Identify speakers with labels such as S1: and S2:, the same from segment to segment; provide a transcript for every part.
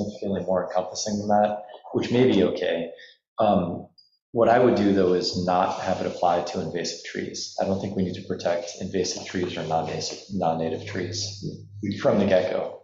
S1: significantly more encompassing than that, which may be okay. Um, What I would do, though, is not have it apply to invasive trees. I don't think we need to protect invasive trees or non-native, non-native trees from the get-go.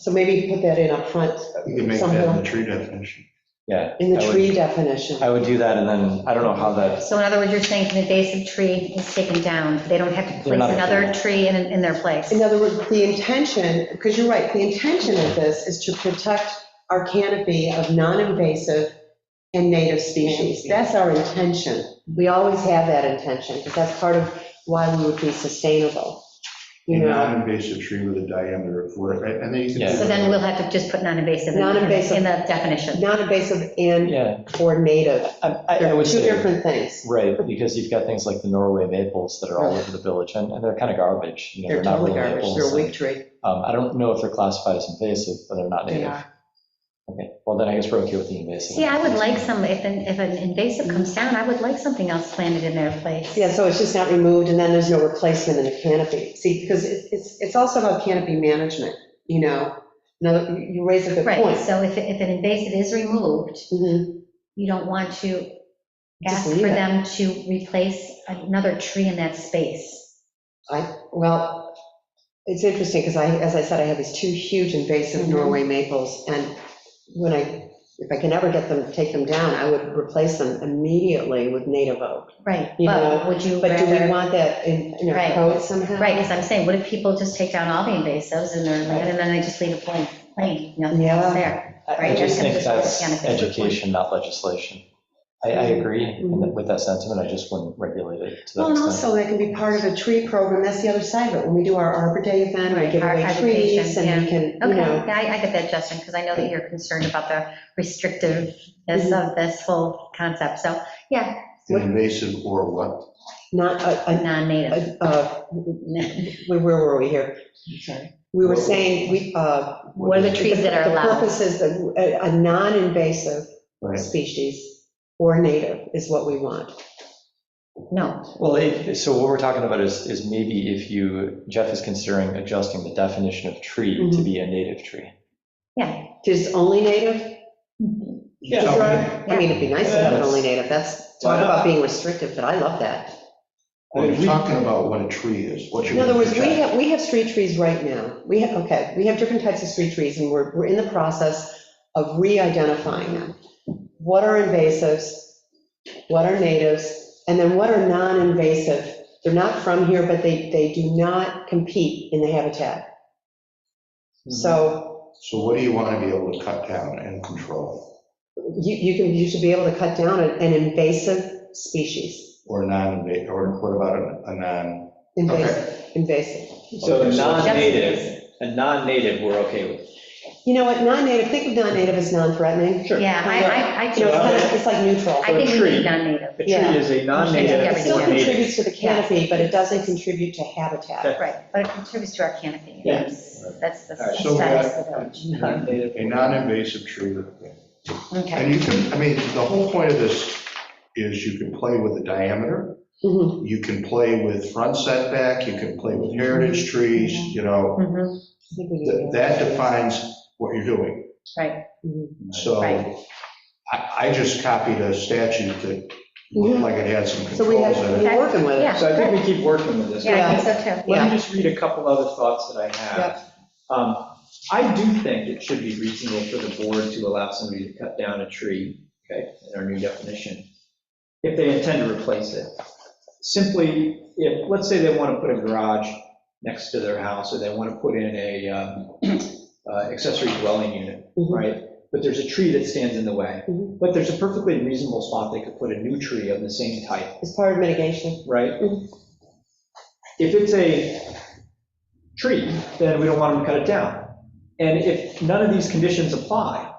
S2: So maybe put that in up front
S3: You can make that in the
S2: somewhere,
S3: tree definition.
S1: Yeah.
S2: in the
S1: I would-
S2: tree definition.
S1: I would do that, and then, I don't know how that,
S4: So in other words, you're saying if an invasive tree is taken down, they don't have to
S1: They're
S4: place
S1: not
S4: another
S1: affected.
S4: tree in, in their place.
S2: In other words, the intention, because you're right, the intention of this is to protect our canopy of non-invasive and native species. That's our intention. We always have that intention, because that's part of why we would be sustainable.
S3: A
S2: You know,
S3: non-invasive tree with a diameter of four, and and then you
S1: Yeah.
S3: can.
S4: So then we'll have to just put non-invasive in
S2: Non-invasive.
S4: in the definition.
S2: non-invasive and
S1: yeah,
S2: or native.
S1: I, I I
S2: They're
S1: would
S2: two
S1: say.
S2: different things.
S1: Right, because you've got things like the Norway maples that are all
S2: Right.
S1: over the village, and, and they're kind of garbage. you know,
S2: They're
S1: not
S2: totally
S1: real
S2: garbage,
S1: maples,
S2: they're a
S1: and,
S2: weak tree.
S1: Um, I don't know if they're classified as invasive, but they're not
S2: They
S1: native.
S2: are.
S1: Okay, well, then I guess we're okay with the invasive.
S4: See, I would like some, if an, if an invasive comes down, I would like something else planted in their place.
S2: Yeah, so it's just not removed, and then there's no replacement in the canopy. See, because it- it's, it's also about canopy management, you know? Now, you- you raise a good
S4: Right,
S2: point.
S4: so if, if an invasive is removed,
S2: Mhm.
S4: you don't want to
S2: Just
S4: ask
S2: leave
S4: for
S2: it.
S4: them to replace another tree in that space.
S2: I, well, it's interesting, because I, as I said, I have these two huge invasive
S4: Mhm.
S2: Norway maples, and when I, if I can ever get them, take them down, I would replace them immediately with native oak.
S4: Right,
S2: You
S4: but
S2: know,
S4: would you
S2: But do we
S4: rather?
S2: want that in, in our
S4: Right.
S2: code somehow?
S4: Right, because I'm saying, what if people just take down all the invasives in their land and then they just leave it plain, plain, nothing
S2: Yeah.
S4: else there?
S1: I- I
S4: Right,
S1: just
S4: I can
S1: think
S4: just go with
S1: that's
S4: canopy.
S1: education, not legislation. I, I agree in that- with that sentiment, I just wouldn't regulate it to
S2: Well,
S1: that
S2: and
S1: extent.
S2: also that can be part of a tree program, that's the other side of it, when we do our Arbor Day event, we
S4: Right,
S2: give away
S4: our
S2: trees,
S4: education,
S2: and we can, you
S4: Okay,
S2: know.
S4: yeah, I I get that, Justin, because I know that you're concerned about the
S2: Mm-hmm.
S4: restrictiveness of this whole concept, so, yeah,
S3: An invasive or what?
S2: not a, a,
S4: non-native.
S2: a- uh, where were we here? We were saying, we, uh.
S4: What are the trees that are
S2: The
S4: allowed?
S2: purpose is that a, a non-invasive
S3: Right.
S2: species or native is what we want.
S4: No,
S1: Well, it- so what we're talking about is, is maybe if you, Jeff is considering adjusting the definition of tree to
S2: Mhm.
S1: be a native tree.
S4: yeah.
S2: Just only native?
S1: Yeah.
S2: I mean, it'd be nice to have it
S1: Yeah.
S2: only native, that's, talk about being restrictive, but I love that.
S3: Well, you're talking about what a tree is, what you're.
S2: In other words, we
S3: protecting.
S2: have, we have street trees right now. We have, okay, we have different types of street trees, and we're, we're in the process of re-identifying them. What are invasives? What are natives? And then what are non-invasive? They're not from here, but they, they do not compete in the habitat. So
S3: So what do you want to be able to cut down and control,
S2: you, you can, you should be able to cut down an an invasive species.
S3: or non-invasive, or what about a a non?
S2: Invasive, invasive.
S5: So
S3: Okay, so-
S5: non-native, a non-native, we're okay with.
S2: You know what, non-native, think of non-native as non-threatening.
S5: Sure.
S4: Yeah, I, I, I
S2: You
S4: do,
S2: know, it's kind
S4: I
S2: of, it's like neutral.
S4: think we
S5: Tree.
S4: need non-native,
S5: A
S2: Yeah.
S5: tree is a non-native
S2: It still
S5: or native.
S2: contributes to the canopy, but it doesn't contribute to habitat.
S5: Okay.
S4: right, but it contributes to our canopy,
S5: Yeah.
S4: yes, that's the
S5: All right,
S3: so
S4: status
S3: we
S4: of the village.
S5: Non-native.
S3: A non-invasive tree with
S4: Okay,
S3: And you can, I mean, the whole point of this is you can play with the diameter,
S2: Mhm.
S3: you can play with front setback, you can play with heritage trees, you know,
S4: Mhm,
S2: I think we need
S3: that
S2: to-
S3: that defines what you're doing.
S4: right,
S2: Mhm.
S3: So
S4: Right.
S3: I, I just copied a statute that
S2: Mhm.
S3: looked like it had some
S2: So we
S3: controls
S2: have,
S3: in it.
S2: we're working with it.
S4: yeah,
S5: So I think
S4: good.
S5: we keep working with this.
S4: yeah, I think so too.
S5: Let me just read a couple other thoughts that I have. Um, I do think it should be reasonable for the board to allow somebody to cut down a tree, okay, in our new definition, if they intend to replace it. Simply, if, let's say they want to put a garage next to their house, or they want to put in a um, uh, accessory dwelling unit,
S2: Mhm.
S5: right? But there's a tree that stands in the way.
S2: Mhm.
S5: But there's a perfectly reasonable spot they could put a new tree of the same type
S2: It's part of mitigation.
S5: right?
S2: Mhm.
S5: If it's a tree, then we don't want them to cut it down. And if none of these conditions apply,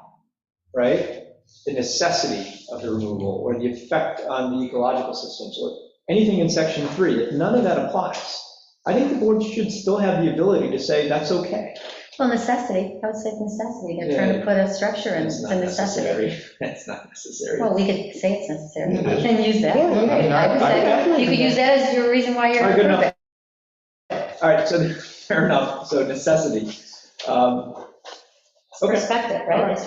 S5: right, the necessity of the removal or the effect on the ecological systems or anything in section three, if none of that applies, I think the board should still have the ability to say, that's okay.
S4: Well, necessity, I would say necessity, they're trying to put a structure in,
S5: That's
S4: it's
S5: not
S4: a necessity.
S5: necessary. That's not necessary.
S4: Well, we could say it's necessary
S3: It is.
S4: and use that.
S2: Yeah,
S3: yeah, yeah.
S4: I would say- You could use that as your reason why
S5: All
S4: you're.
S5: right, good enough. All right, so fair enough, so necessity. Um, Okay.
S4: Respect it,
S5: All
S4: right?
S5: right.